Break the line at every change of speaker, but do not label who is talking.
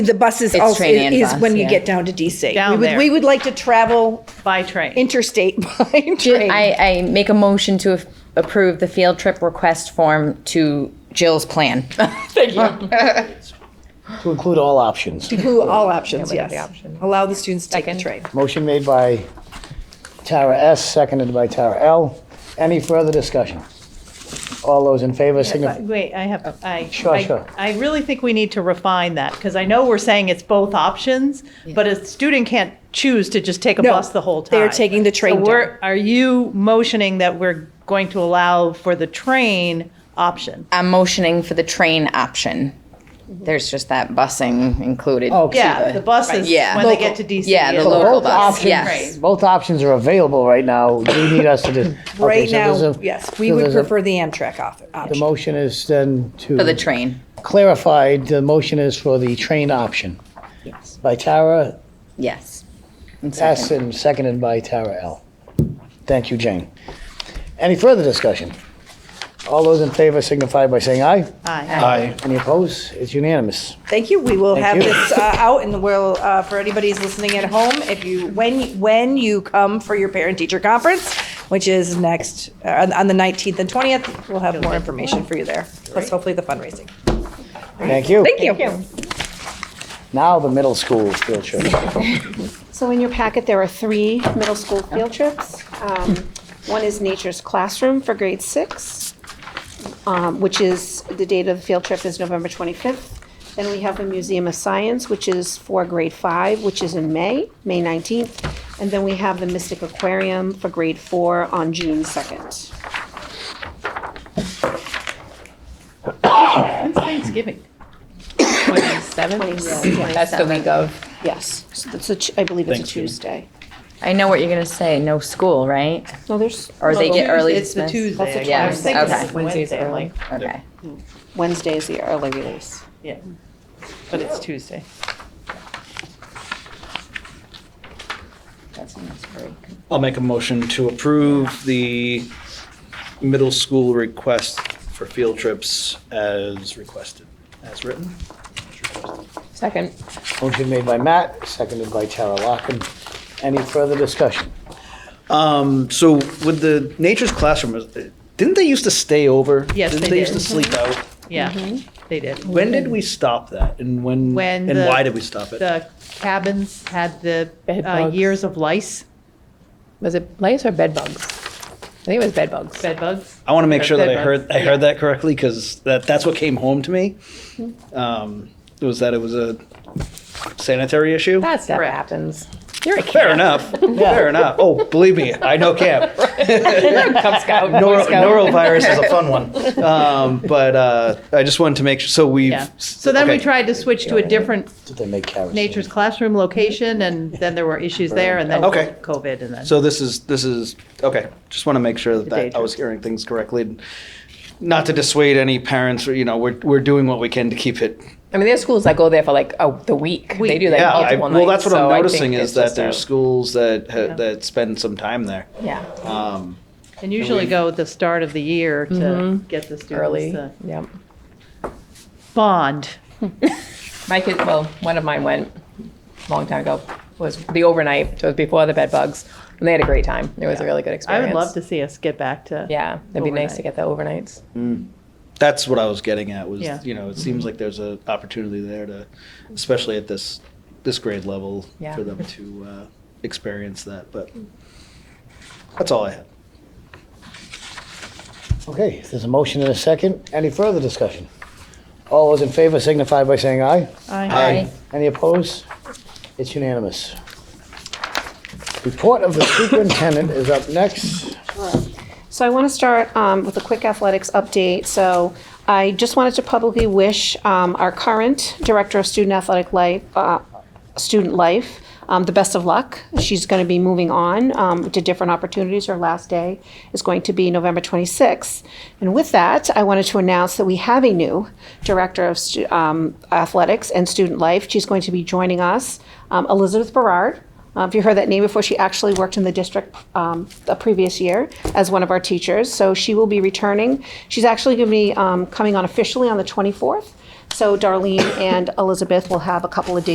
The bus is
It's
also,
train and
is
bus,
when you
yeah.
get down to DC.
Down
We would-
there.
We would like to travel
by train.
interstate by
Ju-
train.
I, I make a motion to af- approve the field trip request form to Jill's plan.
To include all options.
Who, all options, yes. Allow the students to take the train.
Motion made by Tara S., seconded by Tara L. Any further discussion? All those in favor signify.
Wait, I have,
Oh,
I,
Sure,
I
sure.
I really think we need to refine that, because I know we're saying it's both options, but a student can't choose to just take a
No,
bus the whole time.
they're taking the train
So we're, are you motioning that we're going to allow for the train option?
I'm motioning for the train option. There's just that busing included.
Oh,
Yeah, the buses,
yeah.
when they
Local.
get to DC.
Yeah, the
is-
So
local
both
bus,
options-
yes.
Both options are available right now. Do you need us to do? okay,
Right
so
now,
there's a-
yes, we
so
would
there's a-
prefer the Amtrak off-
The
option.
motion is then to.
For the train.
Clarified, the motion is for the train option. Yes. By Tara
Yes. And
S.
second.
and seconded by Tara L. Thank you, Jane. Any further discussion? All those in favor signify by saying aye.
Aye.
Aye. Any opposed? It's unanimous.
Thank you. We will have
you.
this uh, out and we'll, uh, for anybody's listening at home, if you, when, when you come for your parent-teacher conference, which is next, uh, on on the 19th and 20th, we'll have more information for you there. Plus hopefully the fundraising.
Thank you.
Thank you.
Now the middle school field trip.
So in your packet, there are three middle school field trips. Um, One is Nature's Classroom for grade six, um, which is, the date of the field trip is November 25th. Then we have the Museum of Science, which is for grade five, which is in May, May 19th. And then we have the Mystic Aquarium for grade four on June 2nd.
When's Thanksgiving? Twenty-seventh?
That's the week of.
Yes, so that's a Tu- I believe it's a Tuesday.
I know what you're gonna say, no school, right?
No, there's
Or they get early
It's the
dismiss?
Tuesday.
That's a
I was
Tuesday.
thinking
Okay.
it's Wednesday, I'm like,
Okay.
Wednesday is the early release.
yeah. But it's Tuesday.
That's a nice break.
I'll make a motion to approve the middle school request for field trips as requested, as written.
Second.
Motion made by Matt, seconded by Tara Locken. Any further discussion?
So with the nature's classroom, didn't they used to stay over?
Yes,
Didn't
they
they used to
did.
sleep out?
Yeah,
Mm-hmm.
they did.
When did we stop that and when,
When
and
the-
why did we stop it?
The cabins had the
Bed
uh,
bugs.
years of lice,
Was it lice or bed bugs? I think it was bed bugs.
bed bugs.
I want to make sure that I
Bedbugs.
heard, I heard that correctly because that, that's what came home to me.
Mm-hmm.
Um, Was that it was a sanitary issue?
That stuff
Correct.
happens. You're a
Fair
kid.
enough, fair enough. Oh, believe me, I know camp.
Cub Scout.
Noro,
Boy Scout.
norovirus is a fun one. Um, but uh, I just wanted to make sure. So we've.
Yeah. So then we
okay.
tried to switch to a different
Did they make kerosene?
nature's classroom location, and then there were issues there, and then
Okay.
COVID, and then.
So this is this is okay. Just want to make sure that,
day
that I was hearing things correctly. and Not to dissuade any parents, or, you know, we're we're doing what we can to keep it.
I mean, there's schools that go there for like a, the week. They do like
yeah. I,
multiple nights.
well, that's what
so
I'm
I think
noticing is
it's
that
just a-
there's schools that ha- that spend some time there.
Yeah,
Um,
And usually go at the start of the year to get the students
Mm-hmm. early.
to
Yep.
bond.
My kid, well, one of mine went a long time ago. Was the overnight? So it was before the bed bugs, and they had a great time. It was a really good
I
experience.
would love to see us get back to.
Yeah, it'd be nice to
Overnight.
get the overnights.
that's what I was getting at. Was
Yeah.
you know, it seems like there's an opportunity there to, especially at this this grade level,
Yeah.
for them to uh, experience that. But that's all I had.
Okay, there's a motion and a second. Any further discussion? All those in favor signify by saying aye.
Aye.
Any opposed? It's unanimous. Report of the superintendent is up next.
So I want to start um, with a quick athletics update. So I just wanted to publicly wish um, our current director of student athletic life, uh, student life, um, the best of luck. She's going to be moving on um, to different opportunities. Her last day is going to be November 26th. And with that, I wanted to announce that we have a new director of stu- um, athletics and student life. She's going to be joining us, um, Elizabeth Berard. Uh, If you heard that name before, she actually worked in the district um, the previous year as one of our teachers. So she will be returning. She's actually going to be um, coming on officially on the 24th. So Darlene and Elizabeth will have a couple of days